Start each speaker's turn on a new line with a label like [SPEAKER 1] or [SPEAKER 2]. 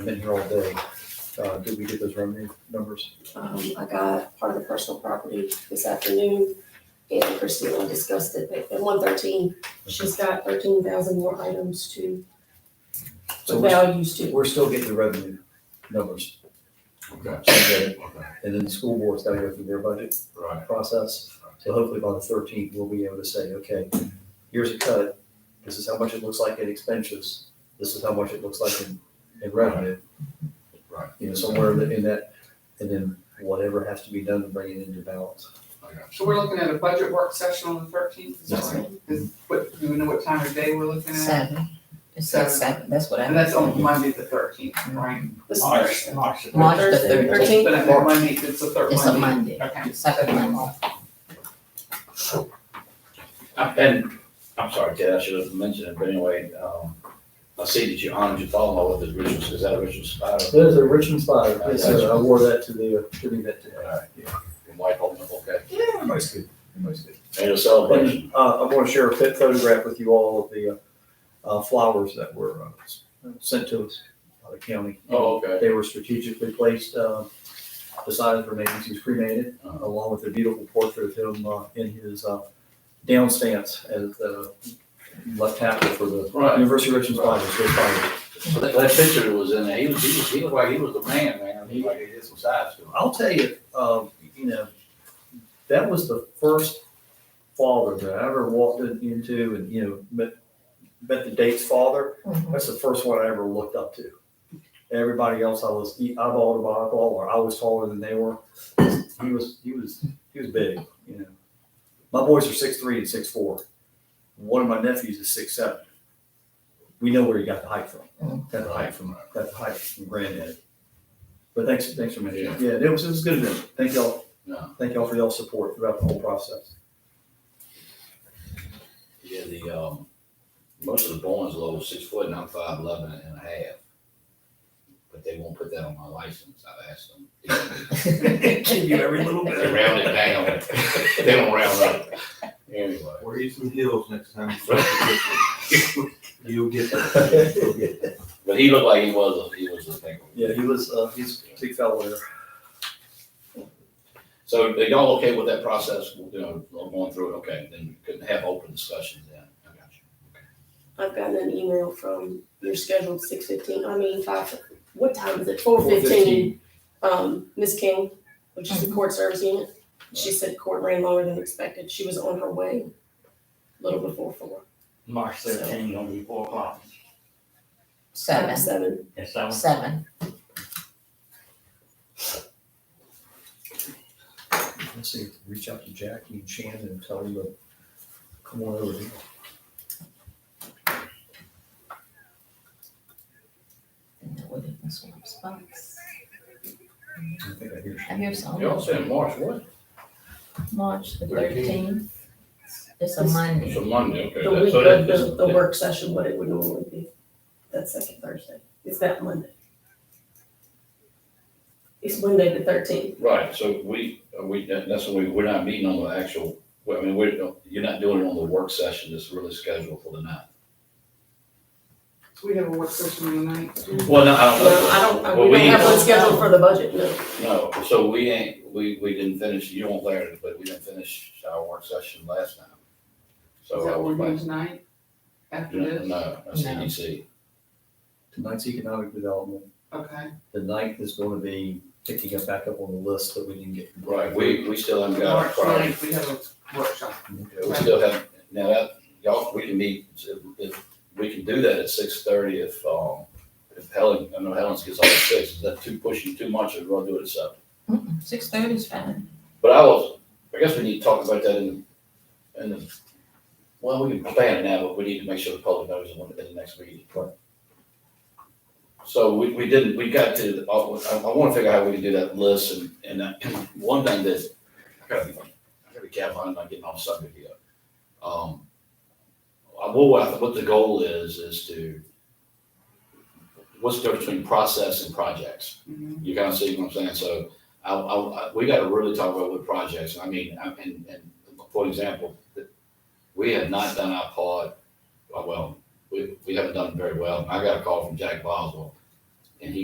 [SPEAKER 1] been here all day. Uh, did we get those revenue numbers?
[SPEAKER 2] Um, I got part of the personal property this afternoon, and Christina discussed it, but at one thirteen, she's got thirteen thousand more items to,
[SPEAKER 1] So we're,
[SPEAKER 2] values to.
[SPEAKER 1] we're still getting the revenue numbers.
[SPEAKER 3] Okay, okay,
[SPEAKER 1] Okay, And then the school board's gotta go through their budget
[SPEAKER 3] right.
[SPEAKER 1] process. So hopefully by the thirteenth, we'll be able to say, okay, here's a cut. This is how much it looks like in expenses. This is how much it looks like in, in revenue.
[SPEAKER 3] Right.
[SPEAKER 1] You know, somewhere in in that, and then whatever has to be done to bring it into balance.
[SPEAKER 3] I got
[SPEAKER 4] So we're looking at a budget work session on the thirteenth, is that
[SPEAKER 1] Yes,
[SPEAKER 4] right? Is, what, do we know what time of day we're looking at?
[SPEAKER 5] Seven. It says
[SPEAKER 4] Seven.
[SPEAKER 5] seven, that's what I.
[SPEAKER 4] And that's on Monday the thirteenth, right?
[SPEAKER 3] you.
[SPEAKER 2] This
[SPEAKER 3] March,
[SPEAKER 2] Thursday.
[SPEAKER 3] March. the
[SPEAKER 5] March the
[SPEAKER 3] 13th.
[SPEAKER 5] thirteenth.
[SPEAKER 2] Thirteenth.
[SPEAKER 4] But on Monday, it's the third
[SPEAKER 5] It's a
[SPEAKER 4] Monday.
[SPEAKER 5] Monday,
[SPEAKER 4] Okay.
[SPEAKER 5] second Monday.
[SPEAKER 6] Uh, And, I'm sorry, Ted, I should have mentioned it, but anyway, um, I see that you honored your father-in-law with his rituals, is that a ritual spider?
[SPEAKER 1] There's a Richmond Spire. Yes, sir. I wore that to the, to the event today.
[SPEAKER 6] Your wife, okay,
[SPEAKER 3] Yeah, everybody's good, everybody's good.
[SPEAKER 6] and a celebration,
[SPEAKER 1] And uh, I want to share a pit photograph with you all of the uh, flowers that were uh, s- sent to us by the county.
[SPEAKER 6] oh, okay,
[SPEAKER 1] They were strategically placed uh, beside his remains. He was cremated,
[SPEAKER 6] Uh-huh.
[SPEAKER 1] uh, along with a beautiful portrait of him uh, in his uh, down stance as the left tackle for the
[SPEAKER 6] Right.
[SPEAKER 1] University of Richmond Spiders. Go Spiders.
[SPEAKER 6] So that, that picture that was in there, he was, he was, he looked like he was the man, man, he like he did some sides to him.
[SPEAKER 1] I'll tell you, uh, you know, that was the first father that I ever walked in- into and, you know, met, met the date's father.
[SPEAKER 5] Mhm.
[SPEAKER 1] That's the first one I ever looked up to. Everybody else I was e- eyeball to eyeball, or I was taller than they were. He was, he was, he was big, you know. My boys are six three and six four. One of my nephews is six seven. We know where he got the height from. Got the height from, got the height from granddad. But thanks, thanks for mentioning. it. Yeah, it was, it was good of them. Thank y'all,
[SPEAKER 6] No,
[SPEAKER 1] thank y'all for y'all's support throughout the whole process.
[SPEAKER 6] yeah, the, um, most of the Bowens low was six foot and I'm five eleven and a half. But they won't put that on my license, I've asked them.
[SPEAKER 1] Give you every little
[SPEAKER 6] They round it down, they don't round up, anyway.
[SPEAKER 7] Wear you some heels next time. You'll get that. You'll
[SPEAKER 1] Yeah,
[SPEAKER 7] get that.
[SPEAKER 6] But he looked like he was a, he was a thing.
[SPEAKER 1] he was, uh, he's a big fellow there.
[SPEAKER 6] So are y'all okay with that process, you know, going through it, okay, then we can have open discussions then. I got you.
[SPEAKER 2] I've gotten an email from, you're scheduled six fifteen, I mean, five, what time is it?
[SPEAKER 5] Oh,
[SPEAKER 2] Four fifteen. Um, Ms. King, which is the court service unit, she said court ran longer than expected. She was on her way a little before four.
[SPEAKER 8] March
[SPEAKER 2] So-
[SPEAKER 8] thirteenth, gonna be four o'clock.
[SPEAKER 5] Seven,
[SPEAKER 2] Seven.
[SPEAKER 8] And so,
[SPEAKER 5] seven.
[SPEAKER 1] Let's see, reach out to Jackie and Shannon and tell them to come on over here.
[SPEAKER 5] And then what did this one spots?
[SPEAKER 1] I think I hear.
[SPEAKER 5] I
[SPEAKER 1] Shannon.
[SPEAKER 5] hear some,
[SPEAKER 6] Y'all said March what?
[SPEAKER 5] March the
[SPEAKER 6] Thirteenth.
[SPEAKER 5] thirteenth. It's a Monday.
[SPEAKER 6] It's a Monday, okay.
[SPEAKER 2] The
[SPEAKER 6] that-
[SPEAKER 2] week
[SPEAKER 6] so that-
[SPEAKER 2] of the, the
[SPEAKER 6] that-
[SPEAKER 2] work session, what it would normally be, that second Thursday, is that Monday? It's Monday the thirteenth.
[SPEAKER 6] Right, so we, uh, we, that- that's when we, we're not meeting on the actual, well, I mean, we're, you're not doing it on the work session that's really scheduled for the night.
[SPEAKER 4] So we have a work session on the ninth.
[SPEAKER 6] Well, no, I don't.
[SPEAKER 2] No, I don't, I-
[SPEAKER 6] Well,
[SPEAKER 2] we don't have one
[SPEAKER 5] ain't-
[SPEAKER 2] scheduled for the budget, no.
[SPEAKER 6] No, so we ain't, we, we didn't finish, you weren't there, but we didn't finish our work session last time.
[SPEAKER 4] Is
[SPEAKER 6] So. I
[SPEAKER 4] that
[SPEAKER 6] was
[SPEAKER 4] one
[SPEAKER 6] like,
[SPEAKER 4] on tonight, after
[SPEAKER 6] No,
[SPEAKER 4] this?
[SPEAKER 6] no, that's EDC.
[SPEAKER 1] Tonight's economic development,
[SPEAKER 4] Okay,
[SPEAKER 1] the ninth is going to be picking up back up on the list that we didn't get.
[SPEAKER 6] Right, we, we still haven't got our
[SPEAKER 4] March
[SPEAKER 6] priority.
[SPEAKER 4] ninth, we have a workshop.
[SPEAKER 6] Yeah, We still have, now that, y'all, we can meet, if- if, we can do that at six thirty if, um, if Helen, I know Helen's gets off at six, is that too pushing too much, or we'll do it at seven?
[SPEAKER 5] Six thirty is fine.
[SPEAKER 6] But I was, I guess we need to talk about that in, in the, well, we can plan it now, but we need to make sure the public knows in the, in the next meeting. So we, we didn't, we got to, I, I wanna figure out how we can do that list and, and uh, one thing that, I gotta be, I gotta be careful, I'm not getting off subject here. Um, I- what, I- what the goal is, is to, what's the difference between process and projects?
[SPEAKER 4] Mhm.
[SPEAKER 6] You kind of see what I'm saying? So I, I, I- we got to really talk about what projects, I mean, I- and, and for example, we have not done our part, uh, well, we, we haven't done very well. I got a call from Jack Boswell